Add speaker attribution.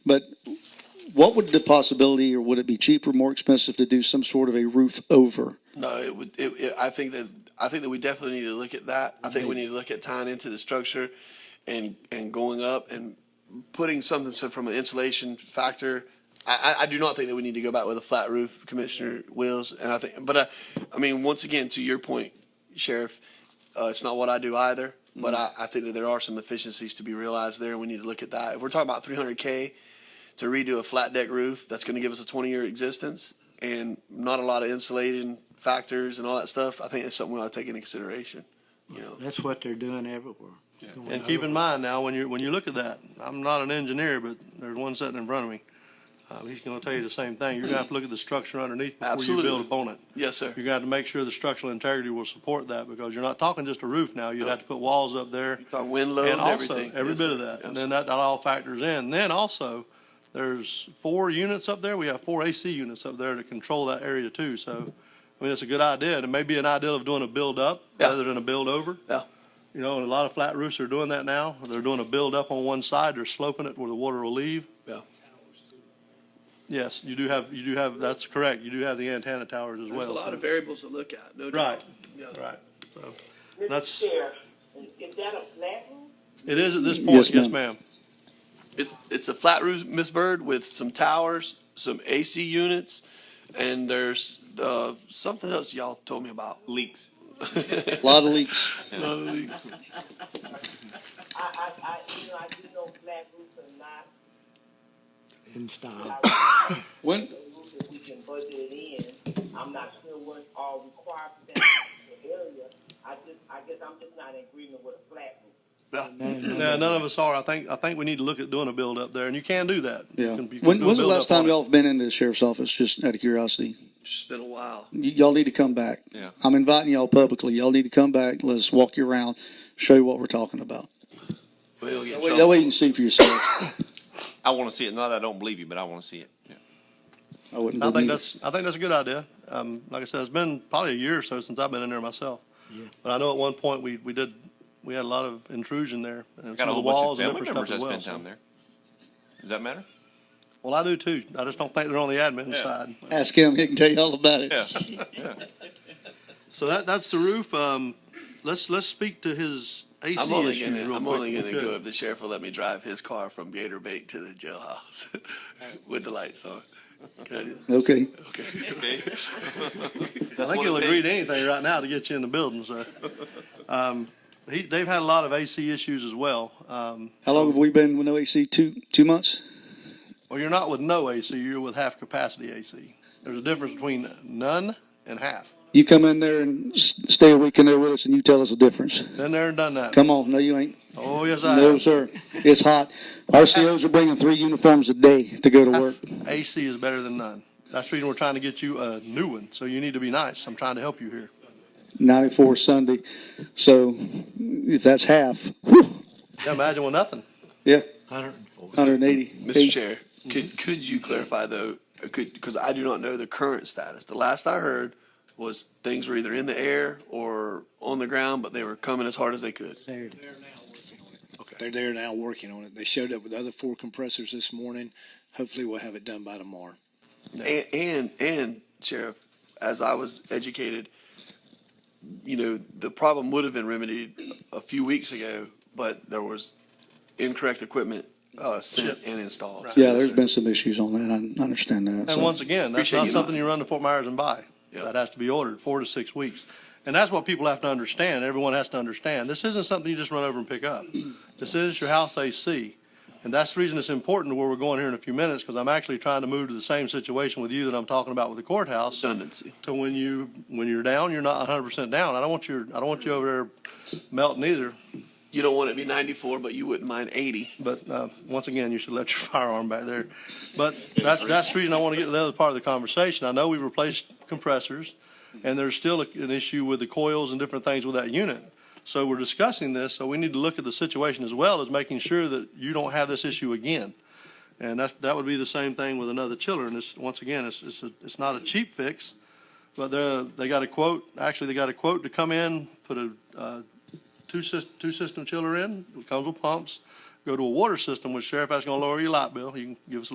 Speaker 1: But what would the possibility, or would it be cheaper, more expensive to do some sort of a roof over?
Speaker 2: No, it would, it, it, I think that, I think that we definitely need to look at that. I think we need to look at tying into the structure and, and going up and putting something, so from an insulation factor. I, I, I do not think that we need to go back with a flat roof, Commissioner Wills, and I think, but I, I mean, once again, to your point, Sheriff, uh, it's not what I do either, but I, I think that there are some efficiencies to be realized there, and we need to look at that. If we're talking about three hundred K, to redo a flat deck roof that's going to give us a 20 year existence and not a lot of insulating factors and all that stuff. I think that's something we ought to take into consideration. You know,
Speaker 3: That's what they're doing everywhere. Going
Speaker 4: And keep in
Speaker 3: over.
Speaker 4: mind now, when you, when you look at that, I'm not an engineer, but there's one sitting in front of me. Um, he's gonna tell you the same thing. You're gonna have to look at the structure underneath before you
Speaker 2: Absolutely.
Speaker 4: build upon it.
Speaker 2: yes, sir.
Speaker 4: You're gonna have to make sure the structural integrity will support that because you're not talking just a roof now. You'd have to put walls up there.
Speaker 2: Talk wind load and
Speaker 4: And also,
Speaker 2: everything.
Speaker 4: every
Speaker 2: Yes,
Speaker 4: bit
Speaker 2: sir.
Speaker 4: of that.
Speaker 2: Yes,
Speaker 4: And then that, that all factors in. Then also, there's four units up there. We have four AC units up there to control that area too. So, I mean, it's a good idea. And it may be an idea of doing a build up
Speaker 2: Yeah.
Speaker 4: rather than a build over.
Speaker 2: Yeah.
Speaker 4: You know, and a lot of flat roofs are doing that now. They're doing a build up on one side. They're sloping it where the water will leave.
Speaker 2: Yeah.
Speaker 4: Yes, you do have, you do have, that's correct. You do have the antenna towers as well.
Speaker 2: There's a lot
Speaker 4: so-
Speaker 2: of variables to look at. No
Speaker 4: Right,
Speaker 2: doubt. Yeah.
Speaker 4: right. So,
Speaker 5: Mr.
Speaker 4: That's-
Speaker 5: Sheriff, is that a flat roof?
Speaker 4: it is at this
Speaker 1: Yes,
Speaker 4: point, yes,
Speaker 1: ma'am.
Speaker 4: ma'am.
Speaker 2: It's, it's a flat roof, Miss Bird, with some towers, some AC units, and there's uh, something else y'all told me about. Leaks.
Speaker 1: A lot of leaks.
Speaker 2: leaks.
Speaker 5: I, I, I, you know, I do know flat roofs are not
Speaker 3: In style.
Speaker 1: When,
Speaker 5: a roof that we can budget it in. I'm not sure what's all required for that particular area. I just, I guess I'm just not in agreement with a flat roof.
Speaker 4: No, none of us are. I think, I think we need to look at doing a build up there and you can do that. You
Speaker 1: yeah.
Speaker 4: can- you can
Speaker 1: When,
Speaker 4: do a
Speaker 1: when's the
Speaker 4: build
Speaker 1: last
Speaker 4: up on
Speaker 1: time
Speaker 4: it.
Speaker 1: y'all have been into the sheriff's office, just out of curiosity?
Speaker 2: It's been a while.
Speaker 1: Y- y'all need to come back. Yeah. I'm inviting y'all publicly. Y'all need to come back. Let's walk you around, show you what we're talking about.
Speaker 2: We'll get
Speaker 1: That
Speaker 2: trouble.
Speaker 1: way you can see for yourself.
Speaker 6: I want to see it. Not that I don't believe you, but I want to see it.
Speaker 1: I wouldn't
Speaker 4: I think
Speaker 1: believe it.
Speaker 4: that's, I think that's a good idea. Um, like I said, it's been probably a year or so since I've been in there myself. But I know at one point we, we did, we had a lot of intrusion there and
Speaker 6: Got
Speaker 4: some
Speaker 6: a
Speaker 4: of the
Speaker 6: whole bunch of
Speaker 4: walls and
Speaker 6: family
Speaker 4: different
Speaker 6: members
Speaker 4: stuff as
Speaker 6: that's
Speaker 4: well.
Speaker 6: been
Speaker 4: so-
Speaker 6: down there. Does that matter?
Speaker 4: Well, I do too. I just don't think they're on the admin
Speaker 6: Yeah.
Speaker 4: side.
Speaker 1: Ask him. He can tell you all about it.
Speaker 6: Yeah.
Speaker 4: So that, that's the roof. Um, let's, let's speak to his AC
Speaker 2: I'm only
Speaker 4: issue
Speaker 2: gonna,
Speaker 4: real
Speaker 2: I'm
Speaker 4: quick,
Speaker 2: only
Speaker 4: if we
Speaker 2: gonna
Speaker 4: could.
Speaker 2: go if the sheriff will let me drive his car from Gator Bank to the jailhouse with the lights on. Can I do that?
Speaker 1: Okay.
Speaker 2: Okay.
Speaker 6: Okay.
Speaker 4: I think
Speaker 6: one
Speaker 4: he'll
Speaker 6: of the
Speaker 4: agree to
Speaker 6: things.
Speaker 4: anything right now to get you in the building, so. Um, he, they've had a lot of AC issues as well. Um,
Speaker 1: How long have we been with no AC? Two two months.
Speaker 4: well, you're not with no AC, you're with half capacity AC. There's a difference between none and half.
Speaker 1: You come in there and s- stay a week in there with us, and you tell us the difference.
Speaker 4: Been there and done that.
Speaker 1: Come on. No, you ain't.
Speaker 4: Oh, yes, I
Speaker 1: No,
Speaker 4: have.
Speaker 1: sir. It's hot. RCOs are bringing three uniforms a day to go to work.
Speaker 4: AC is better than none. That's the reason we're trying to get you a new one, so you need to be nice. I'm trying to help you here.
Speaker 1: 94 Sunday. So if that's half, whew,
Speaker 4: Yeah, imagine with nothing.
Speaker 1: yeah,
Speaker 3: Hundred and four.
Speaker 1: 180.
Speaker 2: Mr. Chair, could, could you clarify though, uh, could, because I do not know the current status. The last I heard was things were either in the air or on the ground, but they were coming as hard as they could.
Speaker 3: Saturday.
Speaker 7: They're there now working on it. They showed up with the other four compressors this morning. Hopefully we'll have it done by tomorrow.
Speaker 2: And, and, and Sheriff, as I was educated, you know, the problem would have been remedied a few weeks ago, but there was incorrect equipment, uh, sent and installed.
Speaker 1: Yeah, there's been some issues on that. I I understand that.
Speaker 4: And
Speaker 1: so.
Speaker 4: once again, that's
Speaker 2: Appreciate
Speaker 4: not
Speaker 2: you.
Speaker 4: something you run to Fort Myers and buy.
Speaker 2: Yeah.
Speaker 4: That has to be ordered, four to six weeks. And that's what people have to understand, everyone has to understand. This isn't something you just run over and pick up. This is your house AC. And that's the reason it's important to where we're going here in a few minutes, because I'm actually trying to move to the same situation with you that I'm talking about with the courthouse.
Speaker 2: Redundancy.
Speaker 4: to when you, when you're down, you're not hundred percent down. I don't want you, I don't want you over there melting either.
Speaker 2: You don't want it to be 94, but you wouldn't mind 80.
Speaker 4: But, uh, once again, you should let your firearm back there. But that's, that's the reason I want to get to the other part of the conversation. I know we've replaced compressors and there's still a- an issue with the coils and different things with that unit. So we're discussing this, so we need to look at the situation as well as making sure that you don't have this issue again. And that's, that would be the same thing with another chiller. And it's, once again, it's, it's, a- it's not a cheap fix. But they're, they got a quote, actually, they got a quote to come in, put a, uh, two sys, two system chiller in, it comes with pumps, go to a water system with sheriff, that's gonna lower your light bill. You can give us a